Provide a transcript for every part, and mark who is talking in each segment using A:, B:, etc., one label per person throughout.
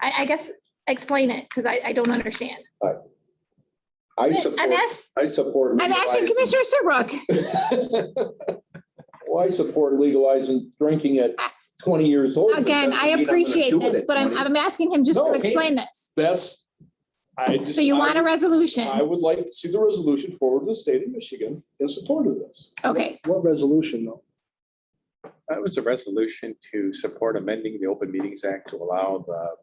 A: I, I guess, explain it, because I, I don't understand.
B: I
A: I'm
B: support,
A: ask,
B: I support.
A: I'm asking
B: legalizing-
A: Commissioner Serbrook.
B: Well, I support legalizing drinking at twenty years old. but
A: Again,
B: that
A: I
B: doesn't mean I'm gonna
A: appreciate
B: do it
A: this,
B: at
A: but I'm,
B: 20.
A: I'm asking him just
B: No,
A: to
B: okay.
A: explain this.
C: That's, I just.
A: So you want a
C: I
A: resolution?
C: would like to see the resolution forward to the state of Michigan in support of this.
A: Okay,
D: What resolution though?
E: That was a resolution to support amending the Open Meetings Act to allow the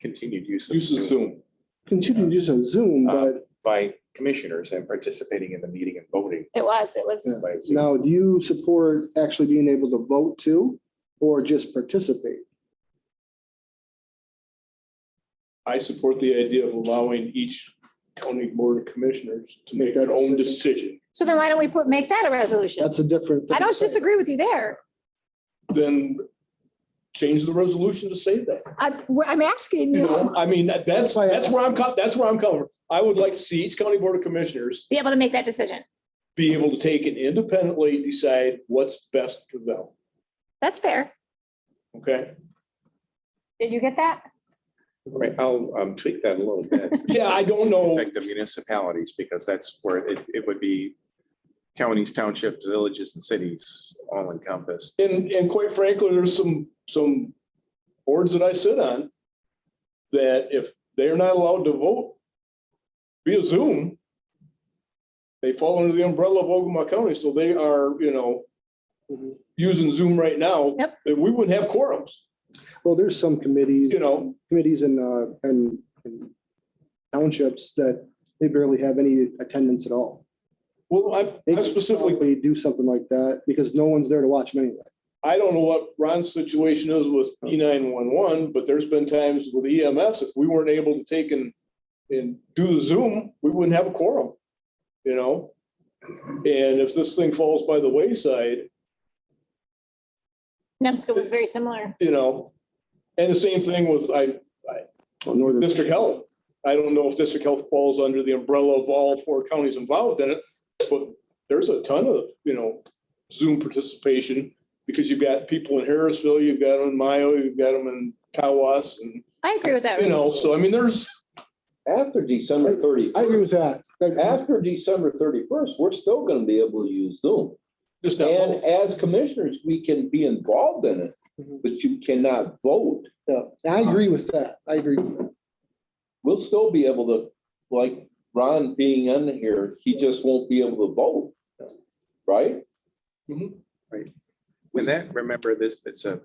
E: continued use of
C: Use of
E: Zoom
C: Zoom.
D: Continue using Zoom,
C: Uh,
D: but
E: by commissioners and participating in the meeting and voting
A: it was, it was,
D: Yeah.
E: by Zoom.
D: now do you support actually being able to vote too? Or just participate?
C: I support the idea of allowing each county board of commissioners to make
D: Make that
C: their own
D: decision.
C: decision.
A: so then why don't we put, make that a resolution?
D: That's a different.
A: I don't disagree with you there.
C: Then change the resolution to say that.
A: I, I'm asking
C: You
A: you
C: know,
A: to
C: I mean, that- that's,
D: Why-
C: that's where I'm, co- that's where I'm coming from. I would like to see each county board of commissioners
A: be able to make that decision.
C: be able to take and independently decide what's best for them,
A: That's fair.
C: okay?
A: Did you get that?
E: Right, I'll um, tweak that a little bit.
C: Yeah, I don't know.
E: Affect the municipalities, because that's where it, it would be counties, townships, villages, and cities all encompassed.
C: And, and quite frankly, there's some, some boards that I sit on that if they're not allowed to vote via Zoom, they fall under the umbrella of Ogama County, so they are, you know, using Zoom right now.
A: Yep.
C: That we wouldn't have quorums,
D: Well, there's some committees,
C: you know,
D: committees and, uh, and and townships that they barely have any attendance at all.
C: well, I,
D: They
C: I
D: could
C: specifically,
D: probably Do something like that because no one's there to watch them anyway.
C: I don't know what Ron's situation is with E nine one one, but there's been times with EMS, if we weren't able to take and, and do the Zoom, we wouldn't have a quorum, you know? And if this thing falls by the wayside,
A: Nemska was very similar.
C: you know, and the same thing with, I,
D: Well, Northern-
C: district health. I don't know if district health falls under the umbrella of all four counties involved in it, but there's a ton of, you know, Zoom participation because you've got people in Harrisville, you've got them in Mayo, you've got them in Tawas and,
A: I agree with that.
C: you know, so I mean, there's,
B: After December thirty,
D: I agree with that.
B: after December thirty-first, we're still gonna be able to use Zoom.
C: just not.
B: And as commissioners, we can be involved in it, but you cannot vote.
D: Yeah, I agree with that. I agree. with that.
B: We'll still be able to, like Ron being in here, he just won't be able to vote. Right?
E: With that, remember this, it's a,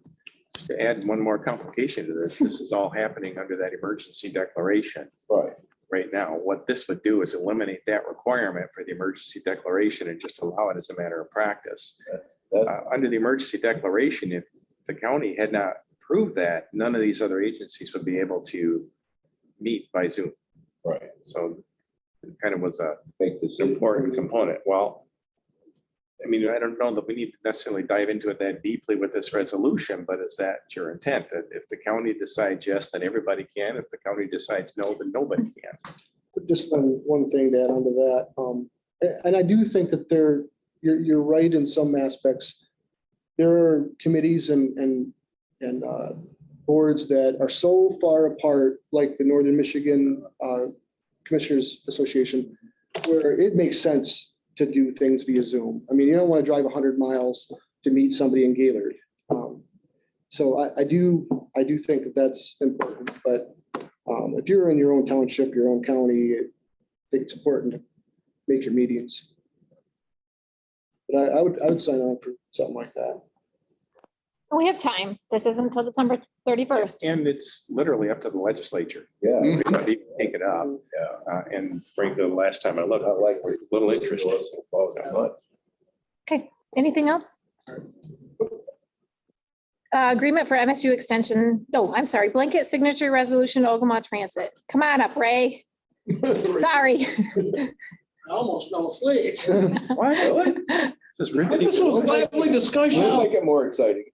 E: to add one more complication to this, this is all happening under that emergency declaration.
B: Right.
E: right now. What this would do is eliminate that requirement for the emergency declaration and just allow it as a matter of practice.
B: That's
E: Uh, Under the emergency declaration, if the county had not approved that, none of these other agencies would be able to meet by Zoom.
B: right.
E: So it kind of was a
B: Make this.
E: important component. Well, I mean, I don't know that we need to necessarily dive into it that deeply with this resolution, but is that your intent? That if the county decides yes, then everybody can. If the county decides no, then nobody can.
D: Just one, one thing to add onto that. Um, a- and I do think that there, you're, you're right in some aspects. There are committees and, and, and, uh, boards that are so far apart, like the Northern Michigan, uh, Commissioners Association, where it makes sense to do things via Zoom. I mean, you don't want to drive hundred miles to meet somebody in Gaylord. Um, So I, I do, I do think that that's important, but um, if you're in your own township, your own county, I think it's important to make your meetings. But I, I would, I would sign on for something like that.
A: We have time. This isn't until December thirty-first.
E: And it's literally up to the legislature.
B: Yeah.
E: We don't even Take it up. Uh, And frankly, the last time I looked,
B: I like what
E: it's a little interesting.
A: Anything else? Uh, agreement for MSU extension. No, I'm sorry, blanket signature resolution to Ogama Transit. Come on up, Ray. Sorry.
D: Almost fell asleep.
B: Really?
E: This is
C: This was
E: riveting.
C: lively
B: Should
C: discussion.
B: make it more exciting.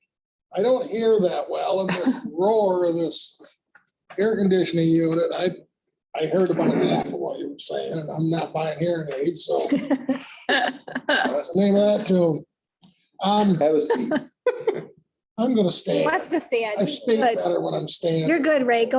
F: I don't hear that well in this roar of this air conditioning unit. I, I heard about half of what you were saying and I'm not buying hearing aids, so. That's the Name of that tune. Um,
B: Have a seat.
F: I'm gonna stand.
A: Wants to stay.
F: I speak better when I'm standing.
A: You're good, Ray. Go